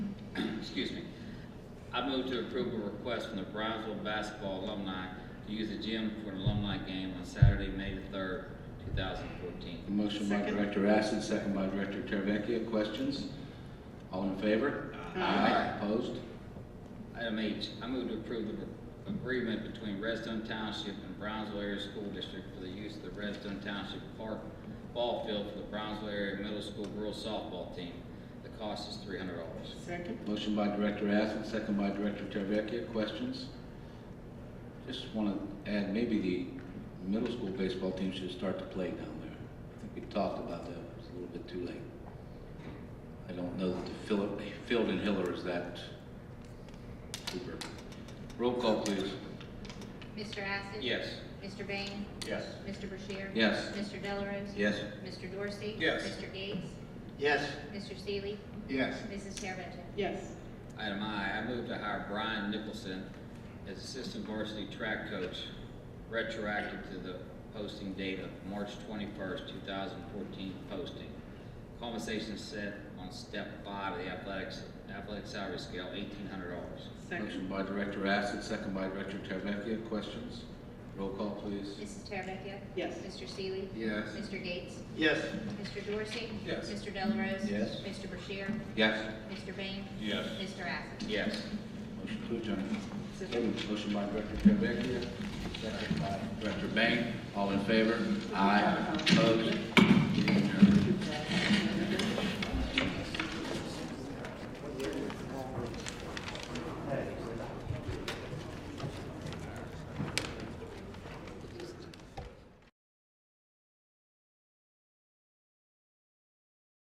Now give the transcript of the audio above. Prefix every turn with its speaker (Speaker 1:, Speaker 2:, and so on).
Speaker 1: I move to approve a request from the Brownsville basketball alumni to use the gym for an alumni game on Saturday, May the third, two thousand fourteen.
Speaker 2: A motion by
Speaker 3: Second.
Speaker 2: Director Acid, second by Director Teravicki. Questions? All in favor? Aye. Opposed?
Speaker 1: Item H, I move to approve the agreement between Redstone Township and Brownsville Area School District for the use of the Redstone Township Park Ball Field for the Brownsville Area Middle School Girls Softball Team. The cost is three hundred dollars.
Speaker 3: Second.
Speaker 2: Motion by Director Acid, second by Director Teravicki. Questions? Just want to add, maybe the middle school baseball team should start to play down there. I think we talked about that, it's a little bit too late. I don't know that the fill- field in Hiller is that super. Roll call, please.
Speaker 4: Mr. Acid?
Speaker 1: Yes.
Speaker 4: Mr. Bain?
Speaker 5: Yes.
Speaker 4: Mr. Bashir?
Speaker 2: Yes.
Speaker 4: Mr. Delarose?
Speaker 2: Yes.
Speaker 4: Mr. Dorsey?
Speaker 5: Yes.
Speaker 4: Mr. Gates?
Speaker 5: Yes.
Speaker 4: Mr. Seeley?
Speaker 5: Yes.
Speaker 4: Mrs. Terrabecchia?
Speaker 3: Yes.
Speaker 1: Item I, I move to hire Brian Nicholson as assistant varsity track coach, retroactive to the posting date of March twenty-first, two thousand fourteen posting. Compensation is set on step five of the athletics, athletic salary scale, eighteen hundred dollars.
Speaker 3: Second.
Speaker 2: Motion by Director Acid, second by Director Teravicki. Questions? Roll call, please.
Speaker 4: Mrs. Terrabecchia?
Speaker 3: Yes.
Speaker 4: Mr. Seeley?
Speaker 5: Yes.
Speaker 4: Mr. Gates?
Speaker 5: Yes.
Speaker 4: Mr. Dorsey?
Speaker 5: Yes.
Speaker 4: Mr. Delarose?
Speaker 2: Yes.
Speaker 4: Mr. Bashir?
Speaker 2: Yes.
Speaker 4: Mr. Bain?
Speaker 5: Yes.
Speaker 4: Mr. Acid?
Speaker 1: Yes.
Speaker 2: Motion to adjourn.
Speaker 3: Second.
Speaker 2: Motion by Director Teravicki, second by Director Bang. All in favor? Aye. Opposed? Meeting adjourned.
Speaker 3: Good job.